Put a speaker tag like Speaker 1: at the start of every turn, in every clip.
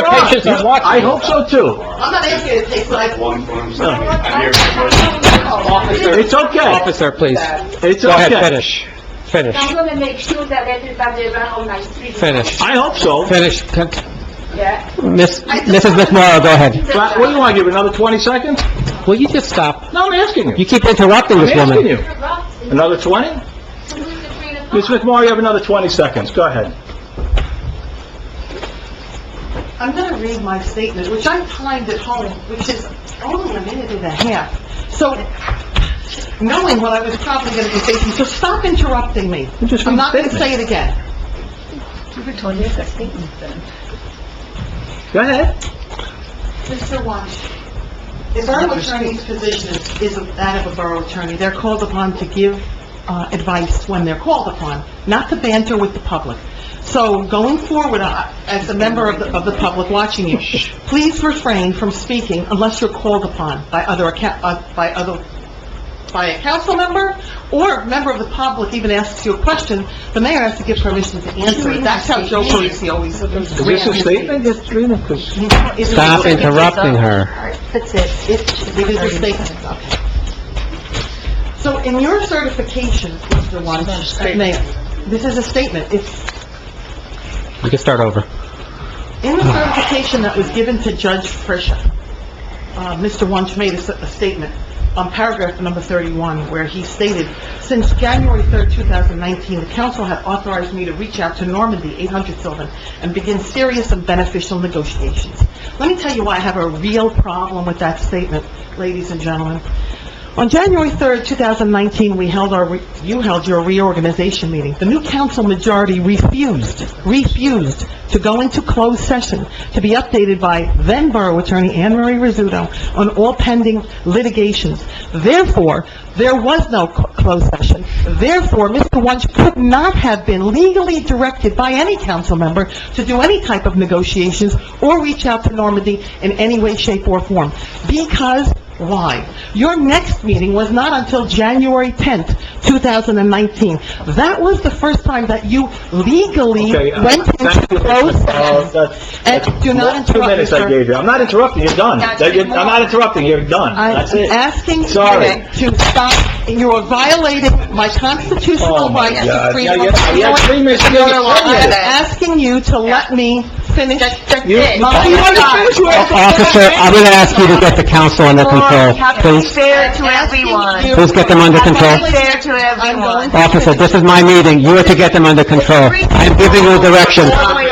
Speaker 1: pictures on watch.
Speaker 2: I hope so too.
Speaker 3: I'm not asking you to take what I want.
Speaker 2: It's okay.
Speaker 1: Officer, please.
Speaker 2: It's
Speaker 1: Go ahead,
Speaker 2: okay.
Speaker 1: finish. Finish,
Speaker 4: I'm gonna make sure that everybody around on my street.
Speaker 1: finish,
Speaker 2: I hope so.
Speaker 1: finish. Con-
Speaker 4: Yeah.
Speaker 1: Miss, Mrs. McMorro, go ahead.
Speaker 2: But What do you want, give it another 20 seconds?
Speaker 1: Will you just stop?
Speaker 2: No, I'm asking
Speaker 1: You
Speaker 2: you.
Speaker 1: keep interrupting
Speaker 2: I'm
Speaker 1: this
Speaker 2: asking
Speaker 1: woman.
Speaker 2: you. Another 20? Ms. McMorro, you have another 20 seconds. Go ahead.
Speaker 3: I'm gonna read my statement, which I timed at home, which is only a minute and a half. So, knowing what I was probably gonna be thinking, so stop interrupting me.
Speaker 2: just
Speaker 3: I'm not gonna
Speaker 2: read the
Speaker 3: say it again.
Speaker 2: Go ahead.
Speaker 3: Mr. Wash, the borough attorney's position is- is that of a borough attorney. They're called upon to give uh, advice when they're called upon, not to banter with the public. So going forward, I- as a member of the, of the public watching you, please refrain from speaking unless you're called upon by other, acca- uh, by other, by a council member or a member of the public even asks you a question, the mayor has to give permission to answer it. That's how Joe Parisi always...
Speaker 2: Is this a statement? Just read it, 'cause-
Speaker 1: Stop interrupting her.
Speaker 4: That's it.
Speaker 3: It is a statement, okay. So in your certification, Mr. Wunsch, Mayor, this is a statement. It's
Speaker 1: You can start over.
Speaker 3: in the certification that was given to Judge Frisha. Uh, Mr. Wunsch made a s- a statement on paragraph number 31 where he stated, "Since January 3rd, 2019, the council had authorized me to reach out to Normandy 800 Sylvan and begin serious and beneficial negotiations." Let me tell you why I have a real problem with that statement, ladies and gentlemen. On January 3rd, 2019, we held our, re- you held your reorganization meeting. The new council majority refused, refused to go into closed session to be updated by then Borough Attorney Anne Marie Rizzuto on all pending litigations. Therefore, there was no cl- closed session. Therefore, Mr. Wunsch could not have been legally directed by any council member to do any type of negotiations or reach out to Normandy in any way, shape, or form. Because why? Your next meeting was not until January 10th, 2019. That was the first time that you legally
Speaker 2: Okay, uh,
Speaker 3: went into
Speaker 2: thank you.
Speaker 3: closed
Speaker 2: Uh,
Speaker 3: session.
Speaker 2: that's-
Speaker 3: And do not
Speaker 2: that's Two
Speaker 3: interrupt,
Speaker 2: minutes I
Speaker 3: sir.
Speaker 2: gave you. I'm not interrupting, you're done. That- you- I'm not interrupting, you're done.
Speaker 3: I'm
Speaker 2: That's it.
Speaker 3: asking you
Speaker 2: Sorry.
Speaker 3: to stop, and you are violating my
Speaker 2: Oh,
Speaker 3: constitutional
Speaker 2: my
Speaker 3: right
Speaker 2: God.
Speaker 3: to freedom
Speaker 2: Yeah,
Speaker 3: of...
Speaker 2: yeah, yeah, three minutes,
Speaker 3: I'm
Speaker 2: you're gonna limit it.
Speaker 3: asking you to let me finish
Speaker 2: You-
Speaker 3: my...
Speaker 2: Oh, you wanna finish with-
Speaker 1: Officer, I'm going to ask you to get the council under control, please.
Speaker 5: fair to
Speaker 3: Asking you-
Speaker 5: everyone.
Speaker 1: Please get them under control.
Speaker 5: Be fair to everyone.
Speaker 1: Officer, this is my meeting. You are to get them under control. I'm giving you direction.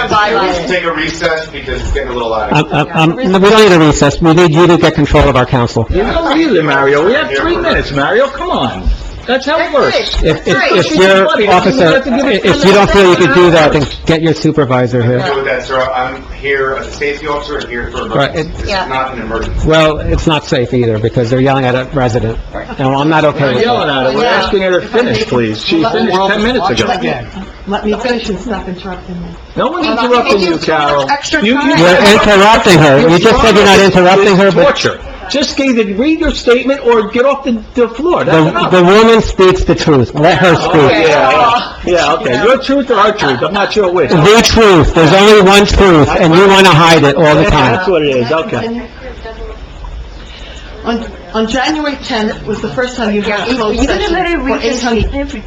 Speaker 5: Violation.
Speaker 6: Take a recess because it's getting a little out of
Speaker 1: Um, um, um, no, we don't need a recess. We need you to get control of our council.
Speaker 2: You don't need it, Mario. We have three minutes, Mario, come on. That's how it works.
Speaker 1: If,
Speaker 2: Right.
Speaker 1: if, if your officer, if you don't feel you can do that, then get your supervisor
Speaker 6: Deal
Speaker 1: here.
Speaker 6: with that, sir. I'm here as a safety officer and here for
Speaker 1: Right,
Speaker 6: emergency.
Speaker 1: it-
Speaker 6: This is
Speaker 5: Yeah.
Speaker 6: not an emergency.
Speaker 1: Well, it's not safe either, because they're yelling at a resident. And I'm not okay
Speaker 2: We're
Speaker 1: with
Speaker 2: yelling
Speaker 1: that.
Speaker 2: at her, we're asking her to finish, please. She finished 10 minutes ago.
Speaker 3: Let me finish and stop interrupting me.
Speaker 2: No one's interrupting you, Carol.
Speaker 3: Extra
Speaker 2: You- you-
Speaker 3: time.
Speaker 1: You're interrupting her. You just said you're not interrupting her, but
Speaker 2: Torture. Just either read your statement or get off the, the floor, that's
Speaker 1: the,
Speaker 2: enough.
Speaker 1: the woman speaks the truth. Let her
Speaker 2: Oh,
Speaker 1: speak.
Speaker 2: yeah, yeah, okay, your truth or our truth, I'm not sure which.
Speaker 1: The truth. There's only one truth, and you want to hide it all the time.
Speaker 2: That's what it is, okay.
Speaker 3: On, on January 10th was the first time you had a closed
Speaker 5: You're gonna
Speaker 3: session
Speaker 5: let her
Speaker 3: for
Speaker 5: read this
Speaker 3: 800...
Speaker 5: every...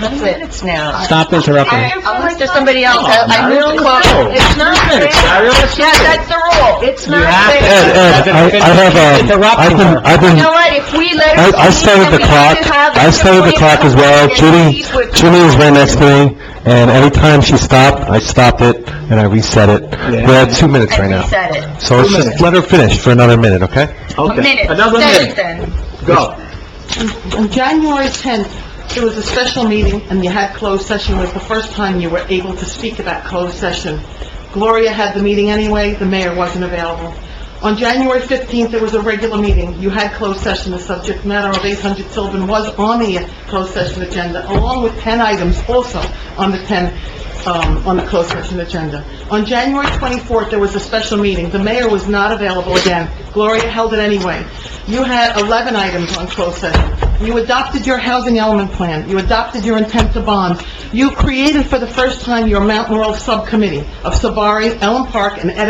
Speaker 5: Minutes now.
Speaker 1: Stop interrupting.
Speaker 5: Unless there's somebody else, I
Speaker 7: Oh,
Speaker 5: I
Speaker 2: Mario,
Speaker 5: move to close.
Speaker 2: no.
Speaker 5: It's not
Speaker 2: Three
Speaker 5: fair.
Speaker 2: minutes, Mario, let's do
Speaker 5: Yeah,
Speaker 2: it.
Speaker 5: that's the rule. It's not
Speaker 1: Ed,
Speaker 5: fair.
Speaker 1: Ed, I I have, um, I've been, I've
Speaker 5: You
Speaker 1: been,
Speaker 5: know what, if we let her...
Speaker 7: I, I started the clock, I started the clock as well, Judy, Judy was right next to me, and every time she stopped, I stopped it, and I reset it. We're at two minutes right now,
Speaker 5: Said it.
Speaker 7: so let's just let her finish for another minute, okay?
Speaker 2: Okay,
Speaker 5: Minutes.
Speaker 2: another
Speaker 5: Said it
Speaker 2: minute,
Speaker 5: then.
Speaker 2: go.
Speaker 3: On January 10th, it was a special meeting, and you had closed session, it was the first time you were able to speak about closed session. Gloria had the meeting anyway, the mayor wasn't available. On January 15th, there was a regular meeting, you had closed session, the subject matter of 800 Sylvan was on the closed session agenda, along with 10 items also on the 10, um, on the closed session agenda. On January 24th, there was a special meeting, the mayor was not available again, Gloria held it anyway. You had 11 items on closed session. You adopted your housing element plan. You adopted your intent to bond. You created for the first time your Mount Laurel Subcommittee of Sabari, Ellen Park, and Ed